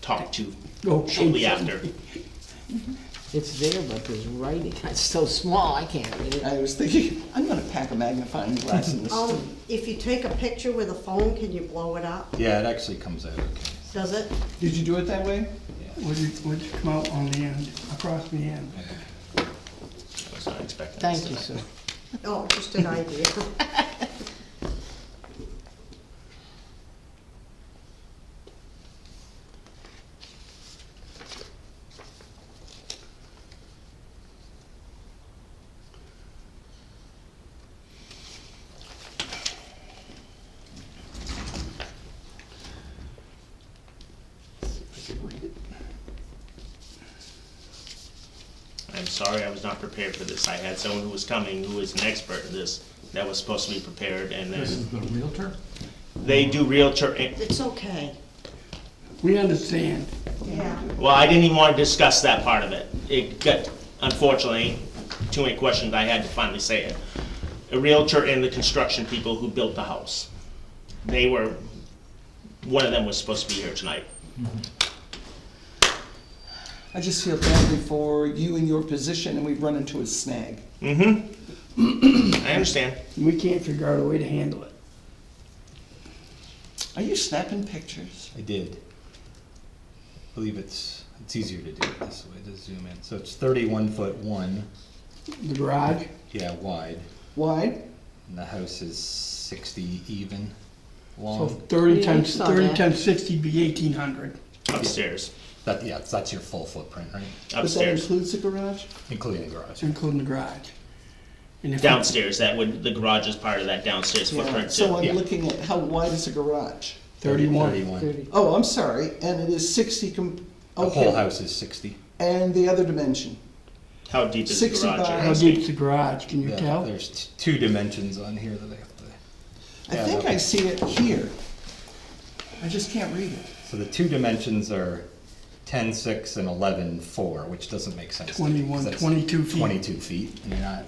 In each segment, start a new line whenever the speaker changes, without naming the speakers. talk to
Oh,
Okay.
shortly after.
It's there, but there's writing, it's so small, I can't read it.
I was thinking, I'm gonna pack a magnifying glass in this.
Um, if you take a picture with a phone, can you blow it up?
Yeah, it actually comes out okay.
Does it?
Did you do it that way?
would it, would come out on the end, across the end.
I was not expecting this
Thank you, sir.
Oh, just an idea.
I'm sorry I was not prepared for this. I had someone who was coming who is an expert in this that was supposed to be prepared and then
the Realtor?
they do realtor. eh, and-
It's okay.
We understand.
Yeah.
Well, I didn't even want to discuss that part of it. It got, unfortunately, too many questions. I had to finally say it. A realtor and the construction people who built the house. They were, one of them was supposed to be here tonight.
I just feel badly for you in your position, and we've run into a snag.
I understand.
We can't figure out a way to handle it.
Are you snapping pictures?
I did. I believe it's, it's easier to do it this way, to zoom in. So it's thirty-one foot one,
The garage,
yeah, wide,
Why?
and the house is sixty even
so
long.
thirty
Yeah,
times,
it's not
thirty
bad.
times sixty be eighteen hundred.
Upstairs,
That, yeah, that's your full footprint, right?
But that
upstairs,
includes the garage?
Including the garage.
including the garage. And if we-
downstairs. That would, the garage is part of that downstairs
Yeah,
footprint
so
too.
yeah.
I'm looking at, how wide is the garage?
Thirty-one.
Thirty-one.
Thirty.
Oh, I'm sorry, and it is sixty com-
The whole
okay,
house is sixty.
and the other dimension?
How deep is the
60
garage?
by-
you're
How
asking?
deep's the garage, can you
Yeah,
tell?
There's t- two dimensions on here that I have to,
I
Yeah,
think
that-
I see it here. I just can't read it.
so the two dimensions are ten-six and eleven-four, which doesn't make sense. to me,
21,
'cause that's
22 feet.
Twenty-two feet, and you're not,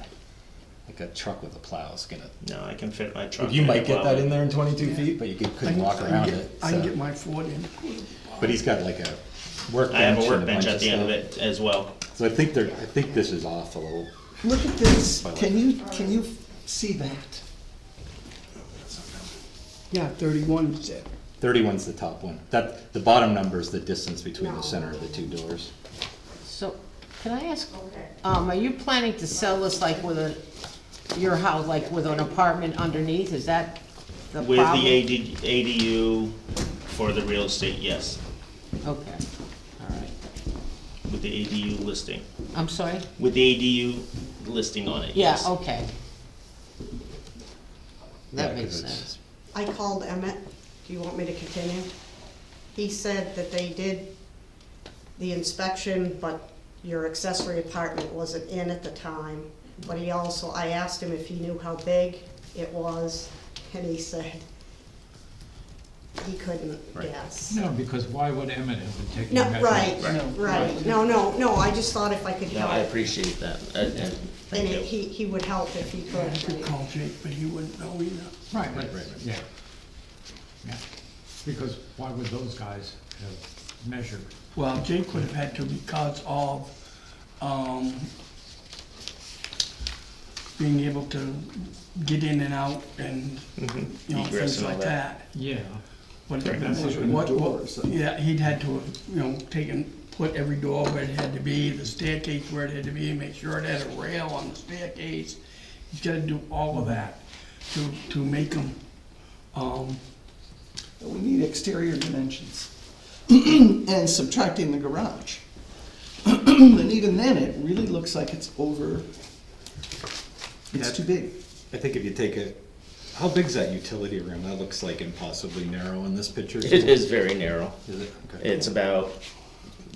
like a truck with a plow is gonna
No, I can fit my truck.
You
in
might
it
get
well.
that in there in twenty-two feet, but you could-
I
couldn't
can-
walk
I can
around
get-
it,
I can
so-
get my Ford in.
But he's got like a
I have
workbench
a
and a bunch
workbench at
of
the end of
stuff.
it as well.
So I think they're, I think this is off a little.
Look at this, can you, can you see that?
Yeah, thirty-one, you said.
Thirty-one's the top one. That, the bottom number is the distance between the center of the two doors.
So, can I ask, um, are you planning to sell this like with a, your house, like with an apartment underneath, is that the
With the
problem?
AD ADU for the real estate, yes,
Okay, all right,
with the ADU listing,
I'm sorry?
with the ADU listing on it,
Yeah,
yes.
okay. That
Yeah, 'cause
makes
it's-
sense.
I called Emmett. Do you want me to continue? He said that they did the inspection, but your accessory apartment wasn't in at the time. But he also, I asked him if he knew how big it was, and he said he couldn't guess.
No, because why would Emmett have been taking
No,
measurements?
right,
No.
right. No, no, no, I just thought if I could
No, I
help.
appreciate that, uh, and
And
thank
it-
you.
he, he would help if he
I could
could.
call Jake, but he wouldn't know either.
Right, right, right, yeah. Yeah. Because why would those guys have measured?
Well, Jake would have had to because of, um, being able to get in and out and, you know,
Mm-hmm. Egress
things
and all
like
that.
that.
Yeah.
Would have
That's what
been,
we
what,
do
what-
or something.
yeah, he'd had to, have, you know, taken, put every door where it had to be, the staircase where it had to be, make sure it had a rail on the staircase. He's gotta do all of that to, to make them, um,
We need exterior dimensions. And subtracting the garage. And even then, it really looks like it's over,
Yeah.
it's too big.
I think if you take a, how big's that utility room? That looks like impossibly narrow in this picture.
It is very narrow.
Is it? Okay.
It's about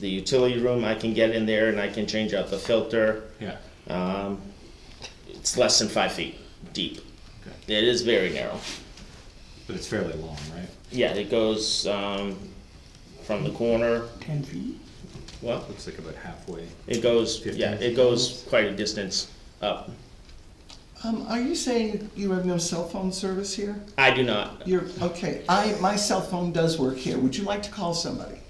the utility room, I can get in there and I can change out the filter.
Yeah,
Um, It's less than five feet deep.
Okay.
It is very narrow.
but it's fairly long, right?
Yeah, it goes um, from the corner,
ten feet.
well,
Looks like about halfway.
It goes, yeah,
Fifteen.
it goes quite a distance up.
Um, are you saying you have no cell phone service here?
I do not.
You're, okay, I, my cell phone does work here. Would you like to call somebody?